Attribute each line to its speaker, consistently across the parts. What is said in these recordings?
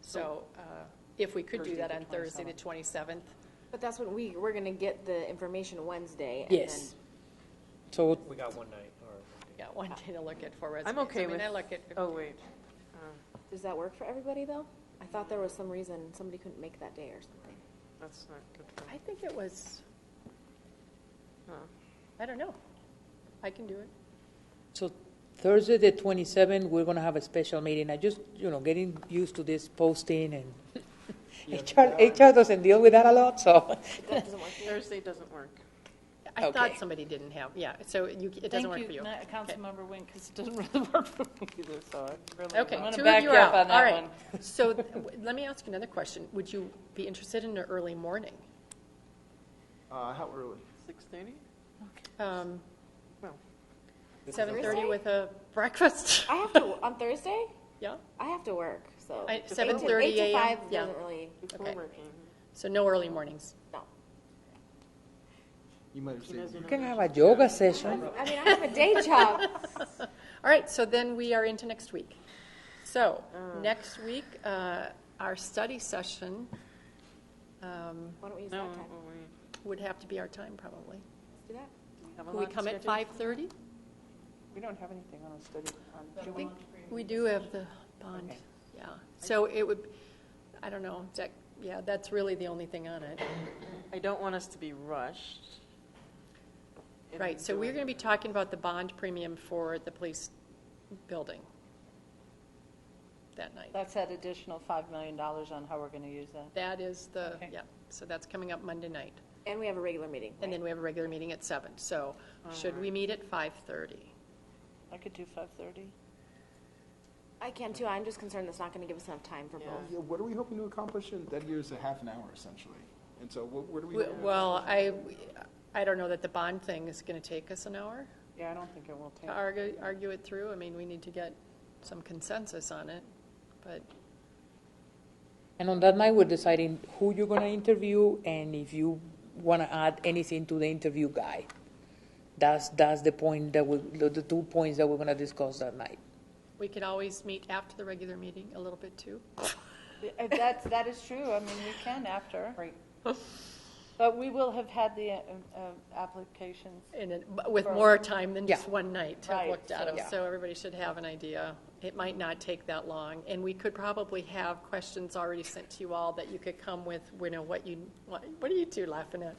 Speaker 1: So uh, if we could do
Speaker 2: Thursday,
Speaker 1: that
Speaker 2: the
Speaker 1: on Thursday, the 27th,
Speaker 3: But that's when we, we're gonna get the information Wednesday. and
Speaker 4: Yes. So
Speaker 5: We got one night, or,
Speaker 1: yeah, one day to look at for resumes.
Speaker 2: I'm okay with,
Speaker 1: I mean, I look at,
Speaker 2: oh, wait.
Speaker 3: then- Does that work for everybody, though? I thought there was some reason somebody couldn't make that day or something.
Speaker 2: That's not good for
Speaker 1: I think it was,
Speaker 2: no.
Speaker 1: I don't know. I can do it.
Speaker 4: So Thursday, the 27th, we're going to have a special meeting. I just, you know, getting used to this posting and HR, HR doesn't deal with that a lot, so.
Speaker 3: That doesn't work for you?
Speaker 2: Thursday doesn't work.
Speaker 1: I thought
Speaker 4: Okay.
Speaker 1: somebody didn't have, yeah, so you, it doesn't work for you.
Speaker 6: Thank you, Councilmember Wing, because it doesn't really work for me either, so I really.
Speaker 1: Okay,
Speaker 6: I'm gonna
Speaker 1: two of
Speaker 6: back
Speaker 1: you
Speaker 6: you
Speaker 1: are
Speaker 6: up
Speaker 1: out,
Speaker 6: on
Speaker 1: all
Speaker 6: that
Speaker 1: right.
Speaker 6: one.
Speaker 1: So th- w- let me ask you another question. Would you be interested in an early morning?
Speaker 7: Uh, how early?
Speaker 2: Six thirty?
Speaker 1: Um,
Speaker 2: Well,
Speaker 1: 7:30
Speaker 3: Thursday?
Speaker 1: with a breakfast?
Speaker 3: I have to, on Thursday,
Speaker 1: Yeah,
Speaker 3: I have to work, so.
Speaker 1: I-
Speaker 3: Eight to-
Speaker 1: 7:30
Speaker 3: Eight to
Speaker 1: a.m.,
Speaker 3: five
Speaker 1: yeah.
Speaker 3: doesn't really,
Speaker 2: before
Speaker 1: Okay.
Speaker 2: working.
Speaker 1: so no early mornings.
Speaker 3: no.
Speaker 7: You might have saved me.
Speaker 4: You can have a yoga session.
Speaker 3: I mean, I have a day job.
Speaker 1: All right, so then we are into next week. So,
Speaker 6: Mm.
Speaker 1: next week, uh, our study session um,
Speaker 3: Why don't we use
Speaker 2: No, oh,
Speaker 3: that time?
Speaker 2: well, we
Speaker 1: would have to be our time, probably.
Speaker 3: Let's do that.
Speaker 2: have a
Speaker 1: Will we
Speaker 2: lot
Speaker 1: come at
Speaker 2: scheduled.
Speaker 1: 5:30?
Speaker 6: We don't have anything on a study, on,
Speaker 1: I
Speaker 6: do we?
Speaker 1: think we do have the bond,
Speaker 6: Okay.
Speaker 1: yeah. So it would, I don't know, that, yeah, that's really the only thing on it.
Speaker 2: I don't want us to be rushed. in
Speaker 1: Right, so we're
Speaker 2: doing-
Speaker 1: going to be talking about the bond premium for the police building that night.
Speaker 6: That's that additional $5 million on how we're going to use that.
Speaker 1: That is the,
Speaker 6: Okay.
Speaker 1: yeah, so that's coming up Monday night.
Speaker 3: And we have a regular meeting.
Speaker 1: And
Speaker 3: right?
Speaker 1: then we have a regular meeting at seven. So should we meet at 5:30?
Speaker 6: I could do 5:30.
Speaker 3: I can too, I'm just concerned that's not gonna give us enough time for both.
Speaker 7: Yeah, what are we hoping to accomplish in, that year's a half an hour essentially, and so what, where do we?
Speaker 1: W- Well, I, I don't know that the bond thing is going to take us an hour
Speaker 6: Yeah, I don't think it will
Speaker 1: to
Speaker 6: take.
Speaker 1: argue, argue it through. I mean, we need to get some consensus on it, but
Speaker 4: And on that night, we're deciding who you're going to interview and if you want to add anything to the interview guide. That's, that's the point that we, the the two points that we're going to discuss that night.
Speaker 1: we could always meet after the regular meeting a little bit too.
Speaker 6: Uh, That's, that is true, I mean, we can after. Right. But we will have had the uh, uh, applications.
Speaker 1: And it- but with more time than just
Speaker 4: Yeah.
Speaker 1: one night to have
Speaker 6: Right,
Speaker 1: looked at
Speaker 6: so-
Speaker 1: them. So everybody should have an idea. It might not take that long. And we could probably have questions already sent to you all that you could come with, you know, what you, what what are you two laughing at?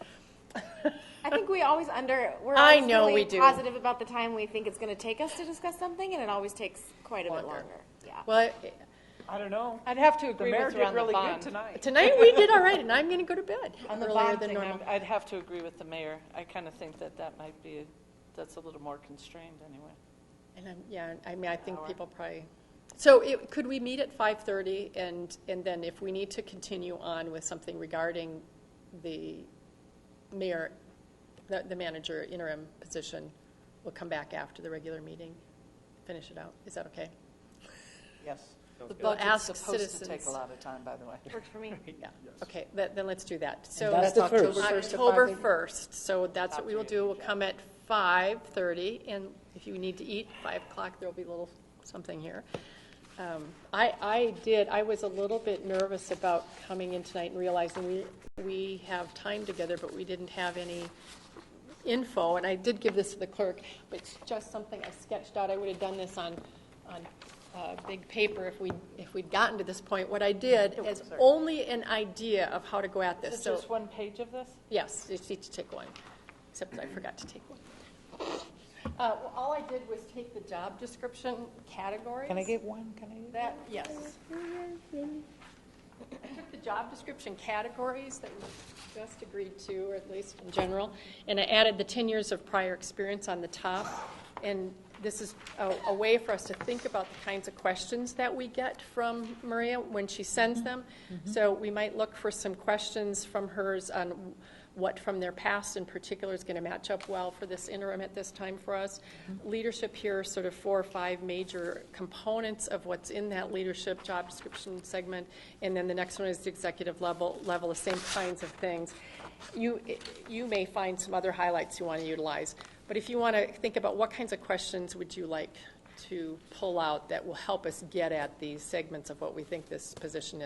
Speaker 3: I think we always under, we're
Speaker 1: I
Speaker 3: always
Speaker 1: know we
Speaker 3: really
Speaker 1: do.
Speaker 3: positive about the time we think it's gonna take us to discuss something, and it always takes quite a bit
Speaker 1: Longer.
Speaker 3: longer, yeah.
Speaker 1: Well,
Speaker 6: I don't know.
Speaker 2: I'd have to
Speaker 6: The
Speaker 2: agree
Speaker 6: mayor
Speaker 2: with her
Speaker 6: did
Speaker 2: on the
Speaker 6: really good
Speaker 2: bond.
Speaker 6: tonight.
Speaker 1: tonight we did all right and I'm going to go to bed
Speaker 6: On the
Speaker 1: earlier
Speaker 6: bond
Speaker 1: than
Speaker 6: thing,
Speaker 1: normal.
Speaker 6: I'm- I'd have to agree with the mayor. I kind of think that that might be, that's a little more constrained anyway.
Speaker 1: And I'm, yeah, I mean, I think people probably, so it, could we meet at 5:30? And, and then if we need to continue on with something regarding the mayor, the, the manager interim position, we'll come back after the regular meeting, finish it out. Is that okay?
Speaker 6: Yes. The
Speaker 1: Well, ask
Speaker 6: budget's supposed to take
Speaker 1: citizens.
Speaker 6: a lot of time, by the way.
Speaker 3: Worked for me.
Speaker 1: Yeah, okay, then, then let's do that. So
Speaker 4: that's That's the October first.
Speaker 6: first to
Speaker 1: October
Speaker 6: 5:30.
Speaker 1: 1st, so that's what we will do. We'll come at 5:30, and if you need to eat, 5 o'clock, there'll be a little something here. Um, I, I did, I was a little bit nervous about coming in tonight and realizing we, we have time together, but we didn't have any info, and I did give this to the clerk, but it's just something I sketched out. I would have done this on, on uh, big paper if we, if we'd gotten to this point. What I did is only an idea of how to go at this,
Speaker 6: Is it
Speaker 1: so,
Speaker 6: just one page of this?
Speaker 1: yes, you just need to take one, except I forgot to take one. Uh, well, All I did was take the job description categories.
Speaker 4: Can I get one? Can I get?
Speaker 1: That, yes. I took the job description categories that we just agreed to, or at least in general, and I added the 10 years of prior experience on the top. And this is a, a way for us to think about the kinds of questions that we get from Maria when she sends them. So we might look for some questions from hers on what from their past in particular is going to match up well for this interim at this time for us. Leadership here, are sort of four or five major components of what's in that leadership job description segment. And then the next one is the executive level, level, the same kinds of things. You, you may find some other highlights you want to utilize, but if you want to think about what kinds of questions would you like to pull out that will help us get at these segments of what we think this position is.